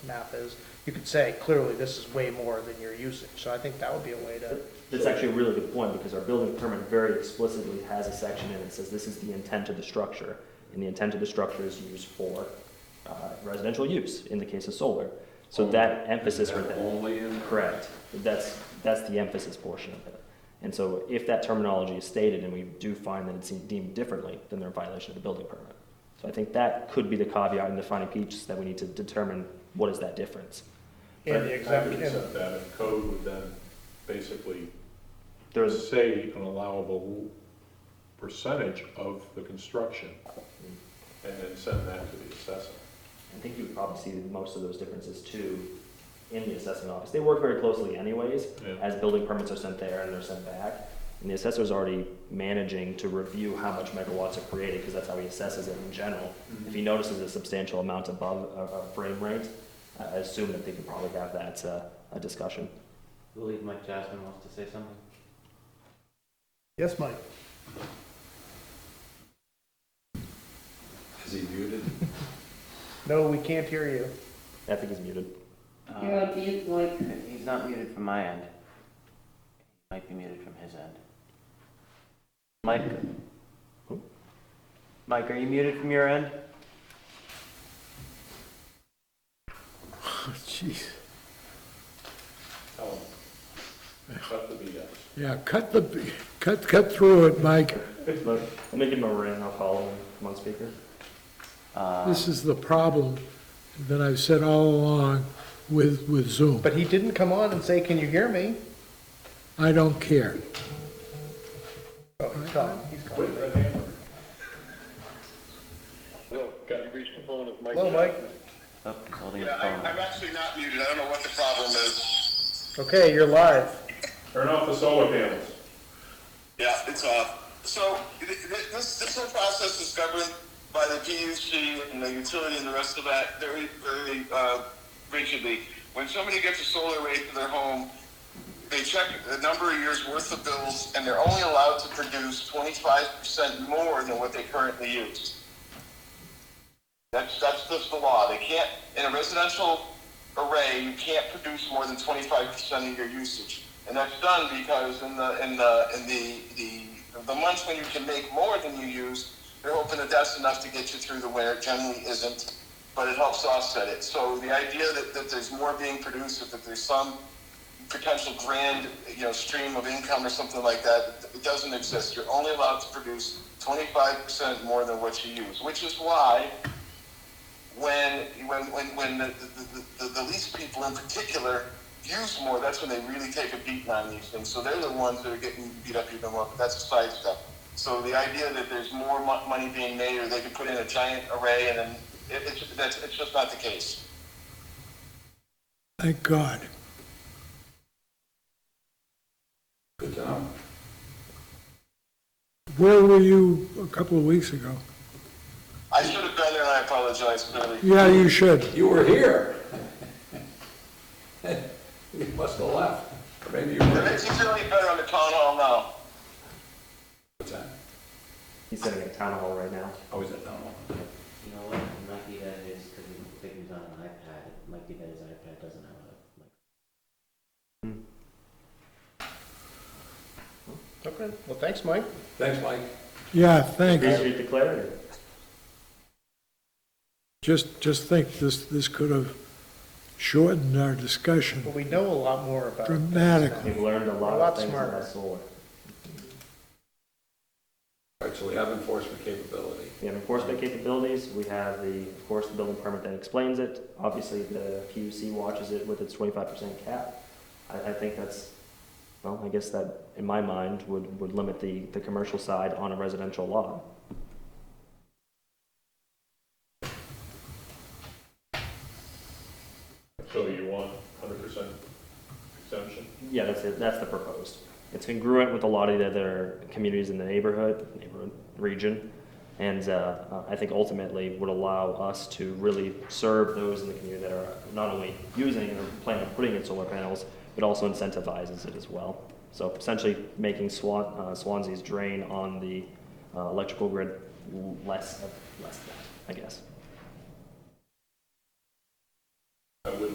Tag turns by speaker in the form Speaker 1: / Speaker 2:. Speaker 1: math is, you could say clearly this is way more than you're using. So I think that would be a way to,
Speaker 2: That's actually a really good point, because our building permit very explicitly has a section in it, says this is the intent of the structure, and the intent of the structure is used for uh, residential use, in the case of solar. So that emphasis for that.
Speaker 3: Only in.
Speaker 2: Correct. That's, that's the emphasis portion of it. And so if that terminology is stated and we do find that it's deemed differently, then they're in violation of the building permit. So I think that could be the caveat in defining peach, that we need to determine what is that difference.
Speaker 1: and the
Speaker 3: I
Speaker 1: exempt,
Speaker 3: could
Speaker 1: and
Speaker 3: accept that, and code would then basically
Speaker 2: There's,
Speaker 3: say an allowable percentage of the construction, and then send that to the assessor.
Speaker 2: I think you would probably see most of those differences too in the assessment office. They work very closely anyways,
Speaker 3: Yeah.
Speaker 2: as building permits are sent there and they're sent back. And the assessor's already managing to review how much megawatts are created, because that's how he assesses it in general. If he notices a substantial amount above a, a frame rate, I I assume that they could probably have that, uh, a discussion.
Speaker 4: I believe Mike Jasmine wants to say something.
Speaker 1: yes, Mike?
Speaker 3: Is he muted?
Speaker 1: No, we can't hear you.
Speaker 2: I think he's muted.
Speaker 5: You're on mute, Mike.
Speaker 4: He's not muted from my end. He might be muted from his end. Mike? Mike, are you muted from your end?
Speaker 6: Oh, Jeez.
Speaker 3: Tell him. Cut the BS.
Speaker 6: Yeah, cut the, cut, cut through it, Mike.
Speaker 2: Let let me give him a ring, I'll call him, come on speaker.
Speaker 4: Uh,
Speaker 6: This is the problem that I've said all along with, with Zoom.
Speaker 1: But he didn't come on and say, can you hear me?
Speaker 6: I don't care.
Speaker 1: Oh, he's gone, he's gone.
Speaker 3: Wait for the hammer.
Speaker 1: Hello, Mike?
Speaker 4: oh, he's holding his
Speaker 7: Yeah, I-
Speaker 4: phone.
Speaker 7: I'm actually not muted. I don't know what the problem is.
Speaker 1: Okay, you're live.
Speaker 3: Turn off the solar panels.
Speaker 7: Yeah, it's off. So th- th- this, this whole process is governed by the PUC and the utility and the rest of that very, very uh, rigidly. When somebody gets a solar array for their home, they check the number of years worth of bills and they're only allowed to produce 25% more than what they currently use. That's, that's just the law. They can't, in a residential array, you can't produce more than twenty-five percent of your usage. And that's done because in the, in the, in the, the, the months when you can make more than you use, they're hoping that that's enough to get you through the winter. It Generally isn't, but it helps offset it. So the idea that, that there's more being produced, or that there's some potential grand, you know, stream of income or something like that, it doesn't exist. You're only allowed to produce twenty-five percent more than what you use, which is why when when when, when the, the, the, the least people in particular use more, that's when they really take a beating on these things. So they're the ones that are getting beat up even more. But that's a side step. So the idea that there's more mo- money being made, or they could put in a giant array, and then it, it's that's it's just not the case.
Speaker 6: Thank God.
Speaker 3: Good job.
Speaker 6: Where were you a couple of weeks ago?
Speaker 7: I should have been there, and I apologize clearly.
Speaker 6: Yeah, you should.
Speaker 8: You were here. You must have left, or maybe you
Speaker 7: It
Speaker 8: were.
Speaker 7: makes you feel any better on the town hall now.
Speaker 8: What's that?
Speaker 2: He's sitting at town hall right now.
Speaker 8: Oh, is it? No, no.
Speaker 4: You know what, it might be that it is, because I think he was on an iPad, it might be that his iPad doesn't have a mic.
Speaker 1: Okay, well, thanks, Mike.
Speaker 8: Thanks, Mike.
Speaker 6: Yeah, thanks.
Speaker 2: Appreciate the clarity.
Speaker 6: Just, just think, this, this could have shortened our discussion
Speaker 1: But we know a lot more about. this now.
Speaker 6: dramatically.
Speaker 2: We've learned a lot
Speaker 1: A lot
Speaker 2: of things
Speaker 1: smarter.
Speaker 2: about solar.
Speaker 8: All right, so we have enforcement capability.
Speaker 2: We have enforcement capabilities, we have the, of course, the building permit that explains it. Obviously, the PUC watches it with its twenty-five percent cap. I, I think that's, well, I guess that, in my mind, would, would limit the, the commercial side on a residential lot.
Speaker 3: So you want hundred percent exemption?
Speaker 2: Yeah, that's it, that's the proposed. It's congruent with a lot of the other communities in the neighborhood, neighborhood, region. And, uh, I think ultimately would allow us to really serve those in the community that are not only using or planning on putting in solar panels, but also incentivizes it as well. So essentially making Swan, uh, Swansea's drain on the, uh, electrical grid less, of- less than, I guess.
Speaker 3: I would